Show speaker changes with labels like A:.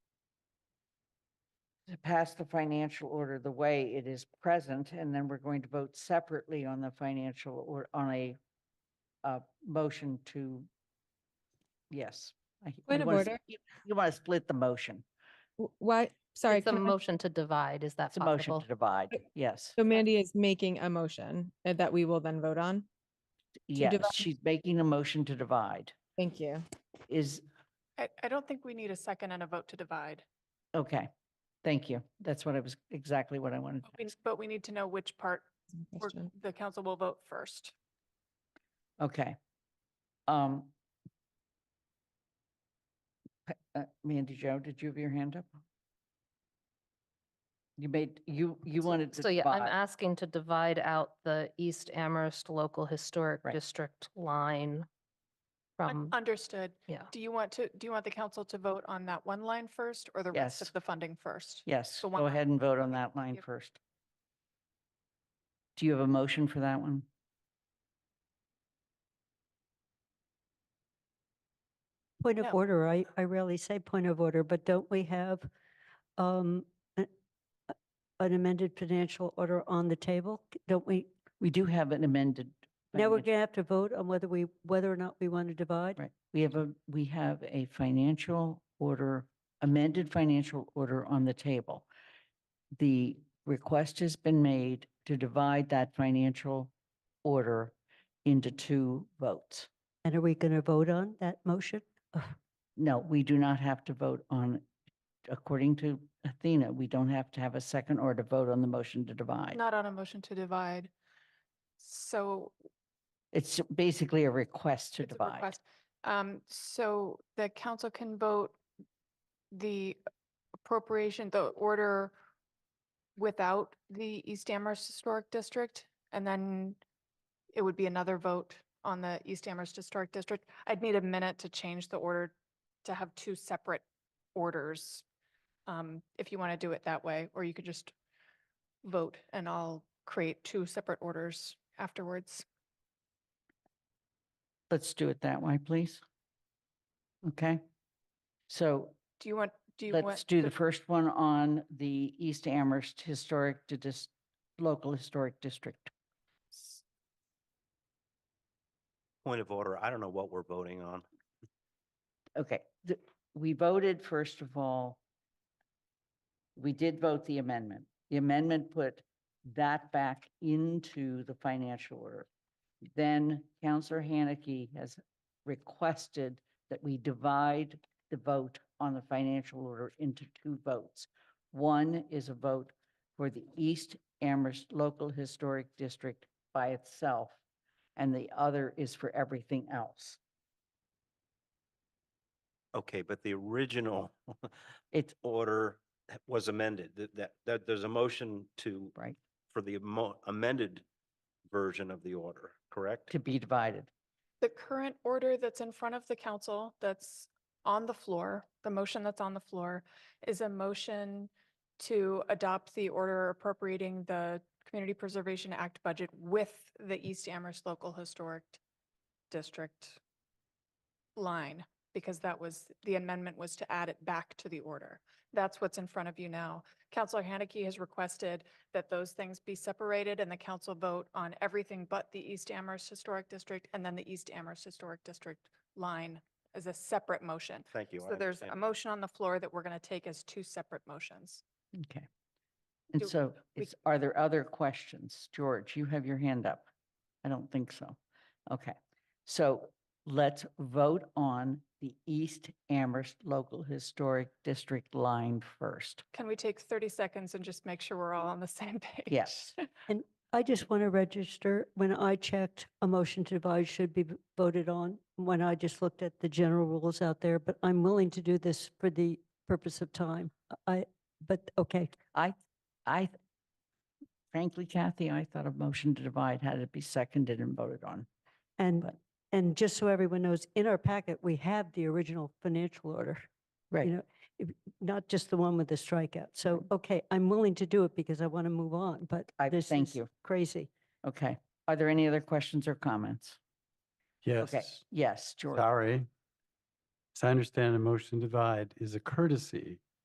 A: to pass the financial order the way it is present, and then we're going to vote separately on the financial or on a uh, motion to, yes. I- you
B: Point of
A: wanna
B: order.
A: s- You want to split the motion.
B: W- Why, sorry,
C: It's a
B: can I-
C: motion to divide. Is that
A: It's a motion
C: possible?
A: to divide. Yes.
B: so Mandy is making a motion uh, that we will then vote on?
A: Yes,
B: divide.
A: she's making a motion to divide.
B: Thank you.
A: Is,
D: I, I don't think we need a second and a vote to divide,
A: okay. Thank you. That's what I was, exactly what I wanted.
D: but
A: to
D: we-
A: ask.
D: but we need to know which part
B: That's my
D: we're-
B: question.
D: the council will vote first.
A: Okay. Um. pa- uh, Mandy Jo, did you have your hand up? You made, you, you wanted to
C: So yeah, I'm
A: divide.
C: asking to divide out the East Amherst Local Historic
A: Right.
C: District line
D: Un-
C: from,
D: Understood.
C: Um, yeah.
D: Do you want to, do you want the council to vote on that one line first or the rest
A: Yes.
D: of the funding first?
A: Yes,
D: So one
A: go
D: line.
A: ahead and vote on that line
D: Yep.
A: first. Do you have a motion for that one?
E: Point
D: No.
E: of order, I, I rarely say point of order, but don't we have um, a- a- an amended financial order on the table? C- Don't we,
A: We do have an amended.
E: now we're
A: financial-
E: going to have to vote on whether we, whether or not we want to divide?
A: Right, we have a, we have a financial order, amended financial order on the table. The request has been made to divide that financial order into two votes.
E: And are we going to vote on that motion?
A: No, we do not have to vote on, according to Athena, we don't have to have a second or to vote on the motion to divide.
D: Not on a motion to divide. So
A: It's basically a request to
D: It's a
A: divide.
D: request. Um, so the council can vote the appropriation, the order without the East Amherst Historic District, and then it would be another vote on the East Amherst Historic District. I'd need a minute to change the order to have two separate orders, um, if you want to do it that way, or you could just vote and I'll create two separate orders afterwards.
A: Let's do it that way, please. Okay? So
D: Do you want, do you want?
A: Let's do the first one on the East Amherst Historic to Dis- Local Historic District.
F: Point of order, I don't know what we're voting on.
A: Okay, th- we voted, first of all, we did vote the amendment. The amendment put that back into the financial order. Then Counselor Haneke has requested that we divide the vote on the financial order into two votes. One is a vote for the East Amherst Local Historic District by itself, and the other is for everything else.
F: Okay, but the original
A: It's,
F: order was amended. That, that, that there's a motion to,
A: right,
F: for the amo- amended version of the order, correct?
A: to be divided.
D: The current order that's in front of the council, that's on the floor, the motion that's on the floor, is a motion to adopt the order appropriating the Community Preservation Act budget with the East Amherst Local Historic District line, because that was, the amendment was to add it back to the order. That's what's in front of you now. Counselor Haneke has requested that those things be separated and the council vote on everything but the East Amherst Historic District and then the East Amherst Historic District line as a separate motion.
F: Thank you.
D: So
F: I
D: there's a
F: understand.
D: motion on the floor that we're going to take as two separate motions.
A: Okay. And
D: Do-
A: so
D: we-
A: is, are there other questions? George, you have your hand up. I don't think so. Okay. So let's vote on the East Amherst Local Historic District line first.
D: Can we take 30 seconds and just make sure we're
F: Mm.
D: all on the same page?
A: Yes.
E: And I just want to register, when I checked, a motion to divide should be v- voted on, when I just looked at the general rules out there, but I'm willing to do this for the purpose of time. I, but, okay,
A: I, I, th- frankly, Kathy, I thought a motion to divide had to be seconded and voted on.
E: and,
A: But-
E: and just so everyone knows, in our packet, we have the original financial order. you know, if- not just the one with the strikeout. So, okay, I'm willing to do it because I want to move on, but
A: I-
E: this
A: thank
E: is
A: you.
E: crazy.
A: Okay. Are there any other questions or comments? Okay.
G: Yes,
A: Yes, George.
G: sorry. As I understand, a motion to divide is a courtesy